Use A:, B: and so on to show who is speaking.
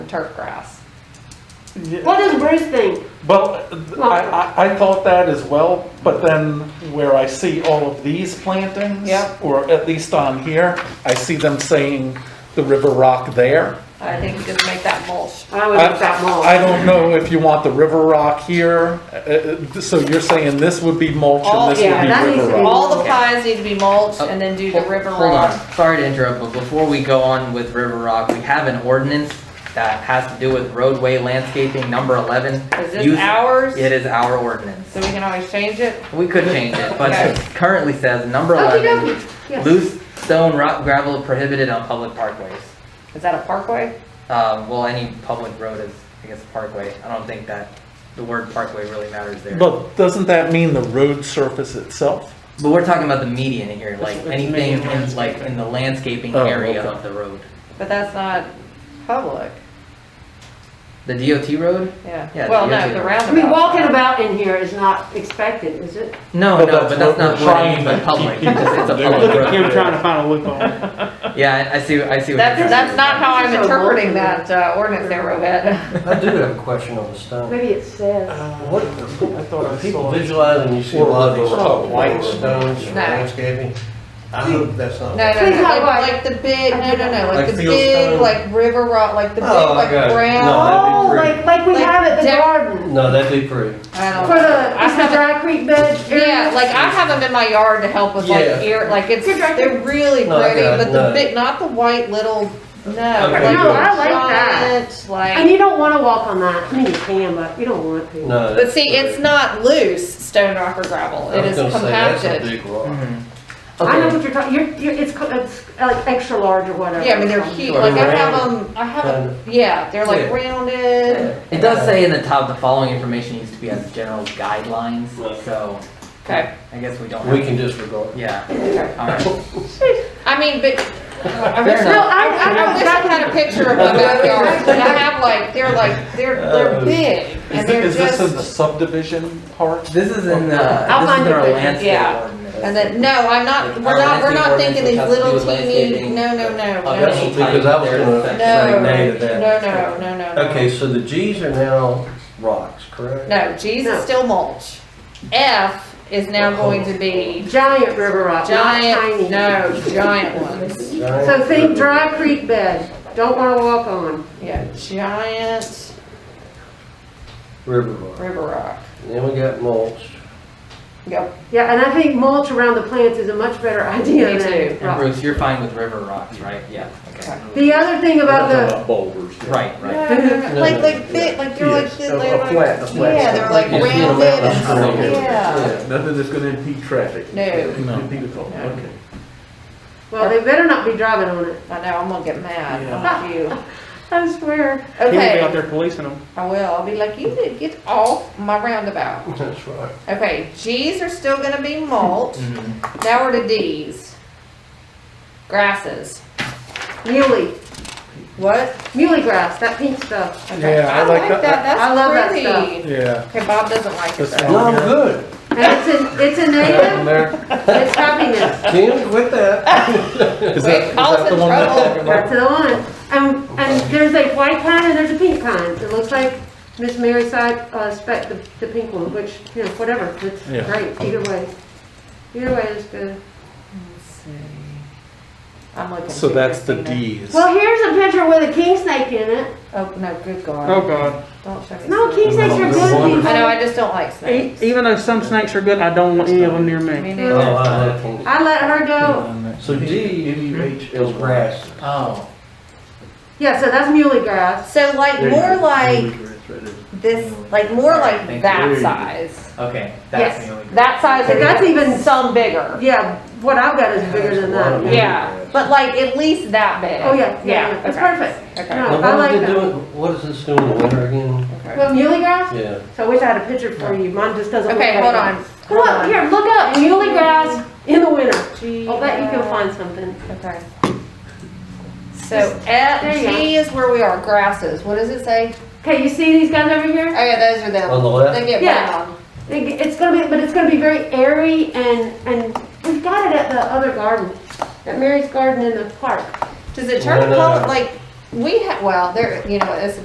A: turf grass.
B: Yeah,
C: What does Bruce think?
B: Well, I, I, I thought that as well, but then where I see all of these plantings,
A: Yep.
B: or at least on here, I see them saying the river rock there.
A: I think you could make that mulch.
C: I would make that mulch.
B: I don't know if you want the river rock here, uh, uh, so you're saying this would be mulch
A: All-
B: and this
C: Oh, yeah, that
B: would be
C: needs to
B: river
C: be-
B: rock.
A: All the pines need to be mulched and then do the
D: Hol-
A: river
D: hold on.
A: rock.
D: Sorry to interrupt, but before we go on with River Rock, we have an ordinance that has to do with roadway landscaping, number eleven.
A: Is this
D: Use-
A: ours?
D: It is our ordinance.
A: So we can always change it?
D: We could change it, but
A: Okay.
D: it currently says number
C: Okey
D: eleven,
C: dokey. Yes.
D: loose stone, rock, gravel prohibited on public parkways.
A: Is that a parkway?
D: Um, well, any public road is, I guess, a parkway. I don't think that the word parkway really matters there. But
B: But doesn't that mean the road surface itself?
D: we're talking about the median here, like
E: It's- it's
D: anything
E: median
D: in, like in the landscaping
B: Oh,
D: area
B: okay.
D: of the road.
A: But that's not public,
D: The DOT road?
A: yeah.
D: Yeah,
A: Well,
D: the
A: no,
D: usual.
A: the
C: I mean,
A: roundabout.
C: walking about in here is not expected, is it?
D: No,
B: But
D: no,
B: that's
D: but
B: what
D: that's not
B: we're
D: what I mean
B: trying
D: by
B: to
D: public.
B: keep
D: It's it's a
B: people
D: public
E: Look
B: doing.
E: at
D: road.
E: Kim trying to find a loophole.
D: Yeah, I I see, I see what you're
A: That's,
D: saying.
A: that's not how I'm
C: This is so
A: interpreting
C: bulky.
A: that uh, ordinance there, Rohit.
F: I do have a question on the stone.
C: Maybe it says.
F: What,
B: I thought I
F: are people
B: saw it.
F: visualizing, you see a lot of these
B: Or-
F: white stones for
A: No.
F: landscaping? I hope that's
A: No,
F: not.
A: no,
C: Please
A: no,
C: not
A: like,
C: white.
A: like the big, no, no, no, like
F: Like
A: the
F: field
A: big,
F: stone.
A: like river rock, like the big,
F: Oh,
A: like
F: okay.
A: brown.
F: No.
C: Oh, like, like we
A: Like
C: have at the
A: deck-
C: garden.
F: No, that'd be pretty.
A: I
C: For
A: don't know.
C: the,
A: I
C: it's the
A: haven't-
C: dry creek bed area.
A: Yeah, like I have them in my yard to help with like
F: Yeah.
A: ear, like it's,
C: Good record.
A: they're really
F: No, I
A: pretty,
F: got it.
A: but the
F: No.
A: big, not the white little, no.
F: Okay,
A: like
F: No,
C: I
A: the
C: like that.
A: giant, Like.
C: And you don't wanna walk on that. I mean, you can, but you don't want to.
F: No.
A: But see, it's not loose stone rock or gravel. It is compacted.
D: Mhm.
C: I know
D: Okay.
C: what you're talking, you're, you're, it's, co- it's uh, like extra large or whatever.
A: Yeah, I mean they're huge. Like I have them. I have them. Yeah, they're like
D: Yeah.
A: rounded.
D: It does say in the top, the following information needs to be as general guidelines, so
A: Okay.
D: I guess we don't
F: We
D: have,
F: can disregard.
D: yeah,
A: okay.
D: alright.
A: I mean, but. I
D: Fair
A: wish, no,
D: enough.
A: I, I, I wish I had a picture of my backyard. But I have like they're like they're they're big
B: Is
A: and they're
B: thi- is this in the
A: just.
B: subdivision part?
D: This is in the, this is in
C: I'll find
D: our
C: it.
D: landscape
A: Yeah.
D: ordinance.
A: And then no, I'm not. We're not. We're not thinking these little teeny. No, no, no,
D: Oh,
A: no,
F: that's
A: no,
F: what- Because I was
A: No.
F: gonna say nay to that.
A: no, no, no. no.
F: Okay, so the Gs are now rocks, correct?
A: No, G's
C: No.
A: is still mulch. F is now going to be
C: Giant river rock, not tiny.
A: giant, no, giant ones.
F: Giant
C: So think
F: river.
C: dry creek bed. Don't wanna walk on.
A: Yeah, giant
F: River rock.
A: river rock.
F: Then we got mulch.
A: Yep.
C: Yeah, and I think mulch around the plants is a much better idea
A: Me
C: than.
A: too.
D: And
C: rock.
D: Bruce, you're fine with river rocks, right? Yeah, okay.
C: The other thing about the,
B: boulders.
D: Right,
A: No,
D: right.
A: no, no,
F: No,
A: Like,
F: no,
A: like, big, like they're like,
B: Yes.
A: this,
F: A-
A: they're
F: a flat, a
A: like,
F: flat
A: yeah,
F: surface.
A: they're like
F: You see them
A: rounded
F: out in
A: and
F: the
A: stuff,
F: stream.
A: yeah.
G: Nothing that's gonna impede traffic.
A: No,
B: No.
G: Impede at all,
A: No.
G: okay.
C: well, they better not be driving on it.
A: I know, I'm gonna get mad, not you.
C: I swear.
B: He would be out
A: Okay,
B: there policing them.
A: I will, I'll be like, you did get off my roundabout.
F: That's right.
A: Okay, G's are still gonna be mulch.
D: Mhm.
A: Now we're to D's. Grasses.
C: Muley,
A: What?
C: muley grass, that pink stuff.
A: Okay.
B: Yeah, I like that.
C: I love that
A: That's pretty.
B: Yeah.
A: Okay, Bob doesn't like it
B: That's
A: though.
F: No, I'm good.
C: And it's a, it's a native, it's happiness.
F: Kim, quit that.
A: Wait,
B: Is that, is
A: Paul's
B: that the
A: in
B: one we're
A: trouble.
B: talking about?
C: Back to the line. And, and there's a white pine and there's a pink pine. It looks like Miss Mary side, uh, spec, the, the pink one, which, you know, whatever, it's
B: Yeah.
C: great, either way. Either way is good.
A: I'm looking.
B: So
A: too,
B: that's the
A: Christina.
B: D's.
C: Well, here's a picture with a king snake in it.
A: Oh, no, good
E: Oh,
A: God.
E: God.
A: Don't show me.
C: No,
A: snakes.
C: king snakes are good.
A: I know, I just don't like
E: E-
A: snakes.
E: Even though some snakes are good, I don't want any of them near me.
A: Me
F: Oh,
A: neither.
F: I like Kim.
C: I let her
A: Oh.
C: go.
F: So D is grass.
D: Oh,
C: Yeah, so that's muley grass.
A: So like, more like this, like more like
D: Thank
A: that
G: you.
A: size.
D: okay,
C: Yes.
D: that's the only.
A: That size,
C: But that's
A: that's even
C: even-
A: some bigger.
C: Yeah, what I've got is bigger than that.
F: Yeah.
A: Yeah, but like at least that big.
C: Oh, yeah, yeah, yeah. It's
A: okay.
C: perfect.
A: Okay.
C: No,
F: Now,
C: I
F: what
C: like
F: is it
C: that.
F: doing, what is this doing in the winter again?
A: Okay.
C: Well, muley grass?
F: Yeah.
C: So I wish I had a picture for you. Mine just doesn't. look
A: Okay,
C: like
A: hold
C: it.
A: on.
C: Come on, here, look up muley grass in the winter.
A: G,
C: I'll bet you
A: uh,
C: can find something.
A: Okay. So F,
C: There you
A: G is where we are, grasses. What does it say?
C: Okay, you see these guys over here?
A: Oh yeah, those are them.
F: On the left?
A: They get
C: Yeah.
A: brown.
C: It- It's gonna be, but it's gonna be very airy and, and we've got it at the other garden, at Mary's Garden in the park.
A: Does it turn
F: No, no,
A: color,
F: no.
A: like, we ha, well, there, you know, it's a